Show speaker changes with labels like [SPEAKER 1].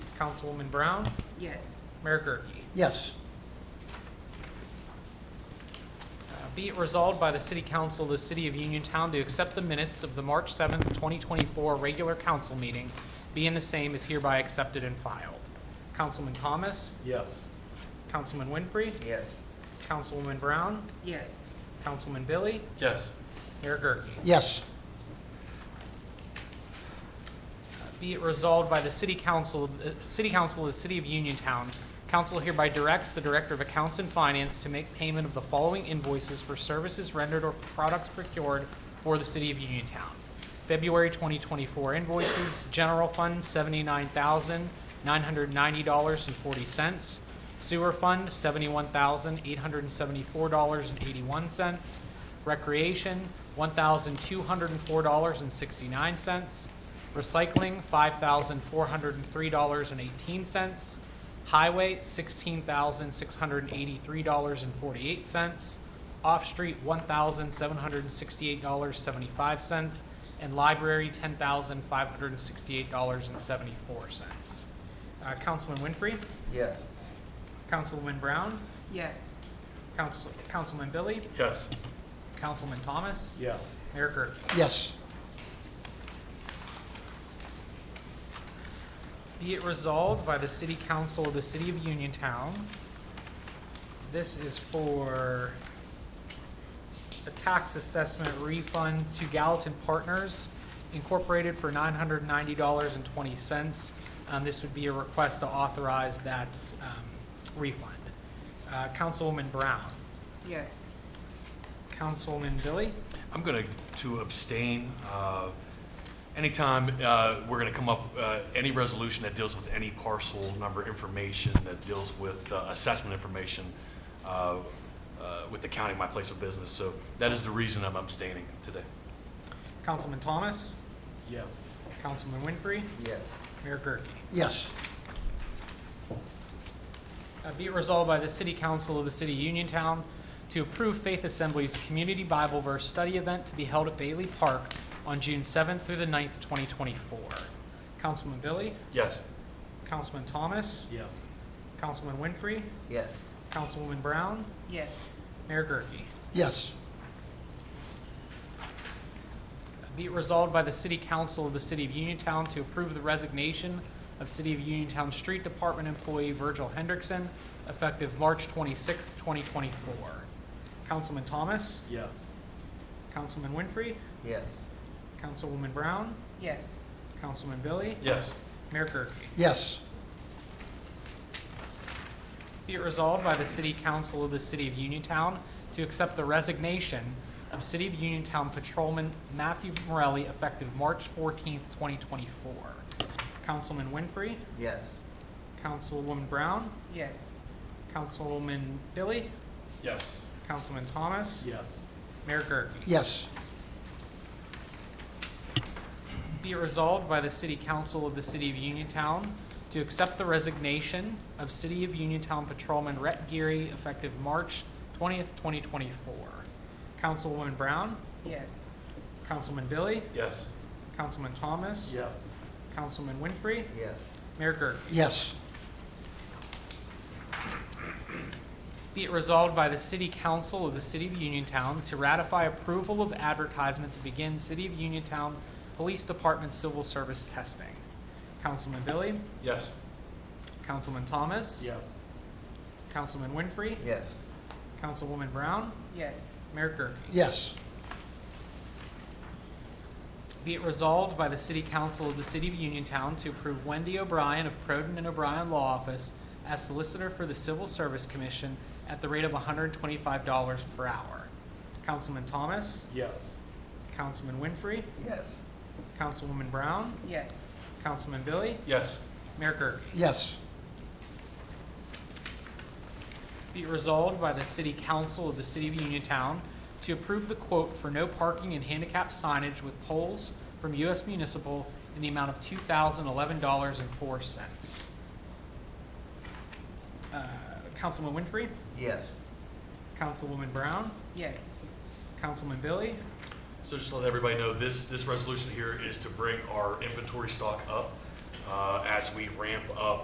[SPEAKER 1] Councilwoman Brown,
[SPEAKER 2] Yes.
[SPEAKER 1] Mayor Gurke.
[SPEAKER 3] Yes.
[SPEAKER 1] Uh, Be it resolved by the City Council of the City of Uniontown to accept the minutes of the March 7th, 2024 regular council meeting, being the same is hereby accepted and filed. Councilman Thomas,
[SPEAKER 4] Yes.
[SPEAKER 1] Councilman Winfrey,
[SPEAKER 3] Yes.
[SPEAKER 1] Councilwoman Brown,
[SPEAKER 2] Yes.
[SPEAKER 1] Councilman Billy,
[SPEAKER 4] Yes.
[SPEAKER 1] Mayor Gurke.
[SPEAKER 3] Yes.
[SPEAKER 1] Be it resolved by the City Council, uh, City Council of the City of Uniontown, council hereby directs the Director of Accounts and Finance to make payment of the following invoices for services rendered or products procured for the City of Uniontown. February 2024 invoices, General Fund, $79,990.40. Sewer Fund, $71,874.81. Recreation, $1,204.69. Recycling, five thousand four hundred and three dollars and eighteen cents. Highway, sixteen thousand six hundred and eighty-three dollars and forty-eight cents. Off-street, one thousand seven hundred and sixty-eight dollars seventy-five cents. And library, ten thousand five hundred and sixty-eight dollars and seventy-four cents. Uh, Councilman Winfrey,
[SPEAKER 3] Yes.
[SPEAKER 1] Councilwoman Brown,
[SPEAKER 2] Yes.
[SPEAKER 1] Council, Councilman Billy,
[SPEAKER 4] Yes.
[SPEAKER 1] Councilman Thomas,
[SPEAKER 4] Yes.
[SPEAKER 1] Mayor Gerke.
[SPEAKER 3] Yes.
[SPEAKER 1] Be it resolved by the City Council of the City of Uniontown. This is for a tax assessment refund to Gallatin Partners Incorporated for nine hundred ninety dollars and twenty cents. Um, this would be a request to authorize that, um, refund. Uh, Councilwoman Brown,
[SPEAKER 2] Yes.
[SPEAKER 1] Councilman Billy,
[SPEAKER 5] I'm going to abstain. Uh, Anytime uh, we're going to come up, uh, any resolution that deals with any parcel number information, that deals with uh, assessment information uh, uh, with the county, my place of business. So that is the reason I'm abstaining today.
[SPEAKER 1] Councilman Thomas,
[SPEAKER 4] Yes.
[SPEAKER 1] Councilman Winfrey,
[SPEAKER 3] Yes.
[SPEAKER 1] Mayor Gerke.
[SPEAKER 3] Yes.
[SPEAKER 1] Uh, Be it resolved by the City Council of the City of Uniontown to approve Faith Assembly's Community Bible Verse Study Event to be held at Bailey Park on June 7th through the 9th, 2024. Councilman Billy,
[SPEAKER 5] Yes.
[SPEAKER 1] Councilman Thomas,
[SPEAKER 4] Yes.
[SPEAKER 1] Councilman Winfrey,
[SPEAKER 3] Yes.
[SPEAKER 1] Councilwoman Brown,
[SPEAKER 2] Yes.
[SPEAKER 1] Mayor Gurke.
[SPEAKER 3] Yes.
[SPEAKER 1] Uh, Be it resolved by the City Council of the City of Uniontown to approve the resignation of City of Uniontown Street Department employee Virgil Hendrickson effective March 26th, 2024. Councilman Thomas,
[SPEAKER 4] Yes.
[SPEAKER 1] Councilman Winfrey,
[SPEAKER 3] Yes.
[SPEAKER 1] Councilwoman Brown,
[SPEAKER 2] Yes.
[SPEAKER 1] Councilman Billy,
[SPEAKER 5] Yes.
[SPEAKER 1] Mayor Gurke.
[SPEAKER 3] Yes.
[SPEAKER 1] Be it resolved by the City Council of the City of Uniontown to accept the resignation of City of Uniontown Patrolman Matthew Morelli effective March fourteenth, twenty twenty-four. Councilman Winfrey,
[SPEAKER 3] Yes.
[SPEAKER 1] Councilwoman Brown,
[SPEAKER 2] Yes.
[SPEAKER 1] Councilman Billy,
[SPEAKER 5] Yes.
[SPEAKER 1] Councilman Thomas,
[SPEAKER 4] Yes.
[SPEAKER 1] Mayor Gurke.
[SPEAKER 3] Yes.
[SPEAKER 1] Be it resolved by the City Council of the City of Uniontown to accept the resignation of City of Uniontown Patrolman Rhett Geary effective March 20th, 2024. Councilwoman Brown,
[SPEAKER 2] Yes.
[SPEAKER 1] Councilman Billy,
[SPEAKER 5] Yes.
[SPEAKER 1] Councilman Thomas,
[SPEAKER 4] Yes.
[SPEAKER 1] Councilman Winfrey,
[SPEAKER 3] Yes.
[SPEAKER 1] Mayor Gurke.
[SPEAKER 3] Yes.
[SPEAKER 1] Be it resolved by the City Council of the City of Uniontown to ratify approval of advertisement to begin City of Uniontown Police Department civil service testing. Councilman Billy,
[SPEAKER 5] Yes.
[SPEAKER 1] Councilman Thomas,
[SPEAKER 4] Yes.
[SPEAKER 1] Councilman Winfrey,
[SPEAKER 3] Yes.
[SPEAKER 1] Councilwoman Brown,
[SPEAKER 2] Yes.
[SPEAKER 1] Mayor Gurke.
[SPEAKER 3] Yes.
[SPEAKER 1] Be it resolved by the City Council of the City of Uniontown to approve Wendy O'Brien of Proden and O'Brien Law Office as solicitor for the Civil Service Commission at the rate of $125 per hour. Councilman Thomas,
[SPEAKER 4] Yes.
[SPEAKER 1] Councilman Winfrey,
[SPEAKER 3] Yes.
[SPEAKER 1] Councilwoman Brown,
[SPEAKER 2] Yes.
[SPEAKER 1] Councilman Billy,
[SPEAKER 5] Yes.
[SPEAKER 1] Mayor Gurke.
[SPEAKER 3] Yes.
[SPEAKER 1] Be it resolved by the City Council of the City of Uniontown to approve the quote for no parking and handicap signage with poles from U.S. Municipal in the amount of two thousand eleven dollars and four cents. Uh, Councilman Winfrey,
[SPEAKER 3] Yes.
[SPEAKER 1] Councilwoman Brown,
[SPEAKER 2] Yes.
[SPEAKER 1] Councilman Billy,
[SPEAKER 5] So just to let everybody know, this, this resolution here is to bring our inventory stock up uh, as we ramp up